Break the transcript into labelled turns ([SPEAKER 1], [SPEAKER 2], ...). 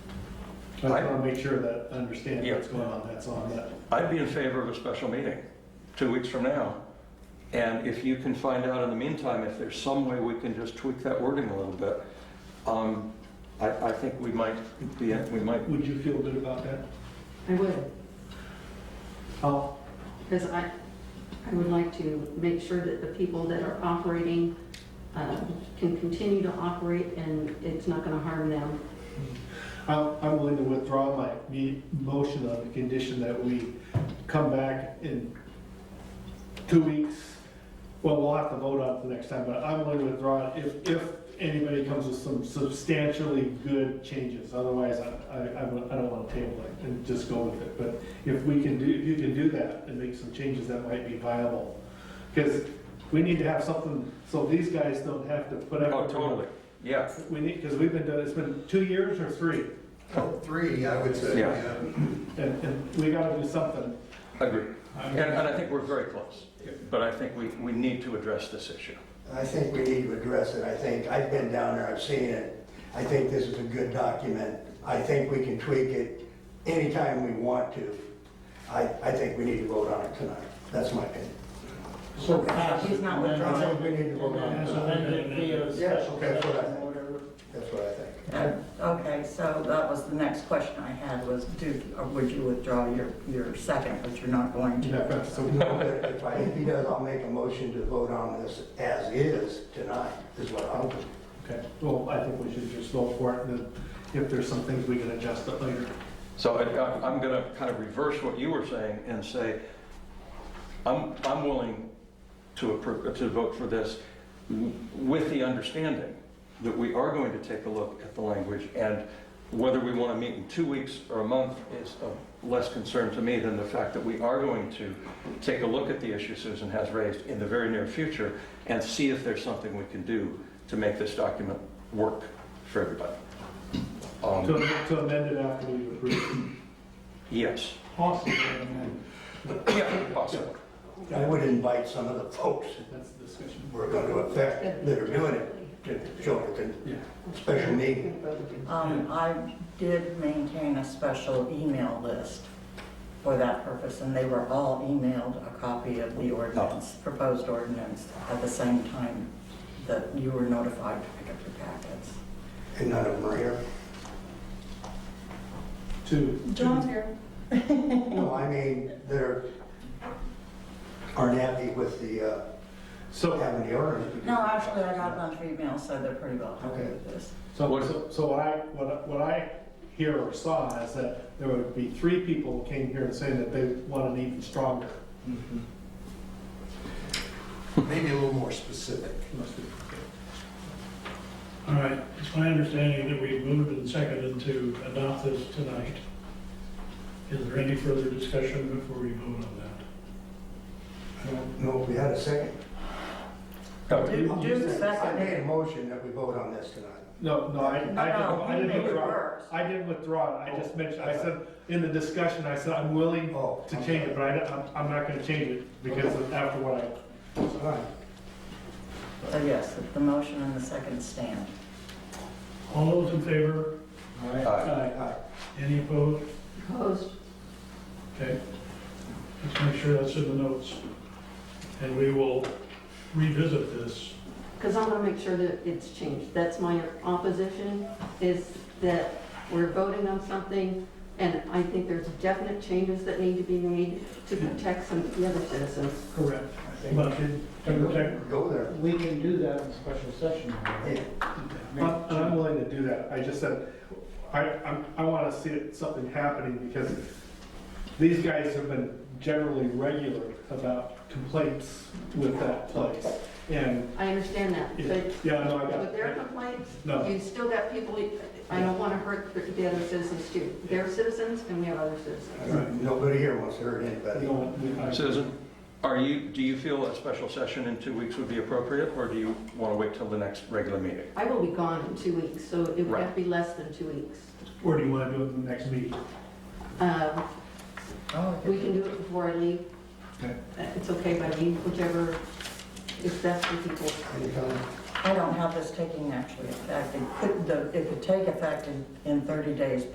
[SPEAKER 1] I just
[SPEAKER 2] Right.
[SPEAKER 1] want to make sure that I understand
[SPEAKER 2] Yeah.
[SPEAKER 1] what's going on, that's on that.
[SPEAKER 2] I'd be in favor of a special meeting, two weeks from now. And if you can find out in the meantime, if there's some way we can just tweak that wording a little bit, um, I, I think we might be, we might,
[SPEAKER 1] Would you feel good about that?
[SPEAKER 3] I would,
[SPEAKER 1] How,
[SPEAKER 3] because I, I would like to make sure that the people that are operating um, can continue to operate and it's not going to harm them.
[SPEAKER 1] I'm I'm willing to withdraw my me- motion on the condition that we come back in two weeks. Well, we'll have to vote on it the next time, but I'm willing to withdraw it if, if anybody comes with some substantially good changes. Otherwise, I, I, I don't- I don't want to table it and just go with it. But if we can do, if you can do that and make some changes that might be viable. Because we need to have something, so these guys don't have to put up.
[SPEAKER 2] oh, totally, yeah.
[SPEAKER 1] We need, because we've been doing, it's been two years or three?
[SPEAKER 4] Three, I would say,
[SPEAKER 2] Yeah.
[SPEAKER 4] yeah.
[SPEAKER 1] And, and we gotta do something.
[SPEAKER 2] Agree. And, and I think we're very close, but I think we, we need to address this issue.
[SPEAKER 4] I think we need to address it. I think, I've been down there, I've seen it. I think this is a good document. I think we can tweak it anytime we want to. I, I think we need to vote on it tonight. That's my opinion.
[SPEAKER 5] So pass it.
[SPEAKER 6] He's not
[SPEAKER 5] amend
[SPEAKER 4] I think
[SPEAKER 5] it.
[SPEAKER 4] we need to vote on
[SPEAKER 5] As
[SPEAKER 4] it.
[SPEAKER 5] amended uh, via
[SPEAKER 4] Yes,
[SPEAKER 5] special
[SPEAKER 4] okay, that's what I
[SPEAKER 5] session
[SPEAKER 4] think.
[SPEAKER 5] order.
[SPEAKER 4] That's what I think.
[SPEAKER 6] Uh, Okay, so that was the next question I had was, do, or would you withdraw your, your second, but you're not going to?
[SPEAKER 4] If I- if he does, I'll make a motion to vote on this as is tonight, is what I'll do.
[SPEAKER 1] Okay, well, I think we should just vote for it, and then if there's some things we can adjust it later.
[SPEAKER 2] So I- I- I'm going to kind of reverse what you were saying and say, I'm, I'm willing to, appro- to vote for this w- with the understanding that we are going to take a look at the language and whether we want to meet in two weeks or a month is of less concern to me than the fact that we are going to take a look at the issue Susan has raised in the very near future and see if there's something we can do to make this document work for everybody. Um,
[SPEAKER 1] To to amend it after we approve.
[SPEAKER 2] Yes.
[SPEAKER 5] Possibly amended.
[SPEAKER 2] Yeah, possible.
[SPEAKER 4] I would invite some of the folks
[SPEAKER 1] That's the discussion.
[SPEAKER 4] who are going to affect, that are doing it, to show up at the
[SPEAKER 1] Yeah.
[SPEAKER 4] special meeting.
[SPEAKER 6] Um, I did maintain a special email list for that purpose, and they were all emailed a copy of the ordinance,
[SPEAKER 1] Oh.
[SPEAKER 6] proposed ordinance, at the same time that you were notified to pick up your packets.
[SPEAKER 4] And none of them are here.
[SPEAKER 1] To.
[SPEAKER 6] John's here.
[SPEAKER 4] No, I mean, they're, aren't happy with the, uh,
[SPEAKER 1] So,
[SPEAKER 4] having the ordinance.
[SPEAKER 6] No, actually, I got a bunch of emails, so they're pretty well happy
[SPEAKER 4] Okay.
[SPEAKER 6] with this.
[SPEAKER 1] so, so- so what I, what I- what I hear or saw is that there would be three people who came here and saying that they want it even stronger.
[SPEAKER 4] Maybe a little more specific.
[SPEAKER 5] All right, it's my understanding that we moved and seconded to adopt this tonight. Is there any further discussion before we vote on that?
[SPEAKER 4] I don't know if we had a second.
[SPEAKER 6] Do,
[SPEAKER 1] you
[SPEAKER 6] do
[SPEAKER 1] said-
[SPEAKER 4] I made
[SPEAKER 6] second.
[SPEAKER 4] a motion that we vote on this tonight.
[SPEAKER 1] No, no, I, I didn't,
[SPEAKER 6] No, no,
[SPEAKER 1] I
[SPEAKER 6] you
[SPEAKER 1] didn't
[SPEAKER 6] made it
[SPEAKER 1] withdraw.
[SPEAKER 6] worse.
[SPEAKER 1] I didn't withdraw it, I just mentioned, I
[SPEAKER 4] okay.
[SPEAKER 1] said, in the discussion, I said, I'm willing
[SPEAKER 4] Oh,
[SPEAKER 1] to
[SPEAKER 4] I'm
[SPEAKER 1] change
[SPEAKER 4] sorry.
[SPEAKER 1] it, but I, don't- I'm, I'm not gonna change it because of- after what I,
[SPEAKER 4] All right.
[SPEAKER 6] So yes, the motion and the second stand.
[SPEAKER 5] All those in favor?
[SPEAKER 2] Aye.
[SPEAKER 1] I-
[SPEAKER 4] Aye.
[SPEAKER 5] Any opposed?
[SPEAKER 3] Opposed?
[SPEAKER 5] Okay. Let's make sure that's in the notes. And we will revisit this.
[SPEAKER 3] Because I want to make sure that it's changed. That's my opposition, is that we're voting on something, and I think there's definite changes that need to be made to protect some of the other citizens.
[SPEAKER 5] Correct.
[SPEAKER 4] I think
[SPEAKER 5] But-
[SPEAKER 4] we
[SPEAKER 5] And protect
[SPEAKER 4] should go there.
[SPEAKER 7] We can do that in special session.
[SPEAKER 4] Yeah.
[SPEAKER 1] I'm I'm willing to do that, I just said, I, I'm, I wanna see it- something happening because these guys have been generally regular about complaints with that place, and,
[SPEAKER 3] I understand that,
[SPEAKER 1] yeah,
[SPEAKER 3] but
[SPEAKER 1] yeah, no, I got
[SPEAKER 3] with their
[SPEAKER 1] it.
[SPEAKER 3] complaints,
[SPEAKER 1] No.
[SPEAKER 3] you still got people, I don't want to hurt the other citizens too. They're citizens, and we have other
[SPEAKER 4] I
[SPEAKER 3] citizens.
[SPEAKER 4] don't- Nobody here wants to hurt
[SPEAKER 1] We
[SPEAKER 4] anybody.
[SPEAKER 1] don't- we- I-
[SPEAKER 2] Susan, are you, do you feel a special session in two weeks would be appropriate, or do you want to wait till the next regular meeting?
[SPEAKER 3] I will be gone in two weeks, so it would have
[SPEAKER 2] Right.
[SPEAKER 3] to be less than two weeks.
[SPEAKER 1] Or do you wanna do it in the next meeting?
[SPEAKER 3] Um,
[SPEAKER 6] Oh,
[SPEAKER 3] We can do it before I leave.
[SPEAKER 1] Okay.
[SPEAKER 3] Uh, It's okay by me, whichever is best for people.
[SPEAKER 6] I don't have this taking actually effect. It could, the- it could take effect in, in 30 days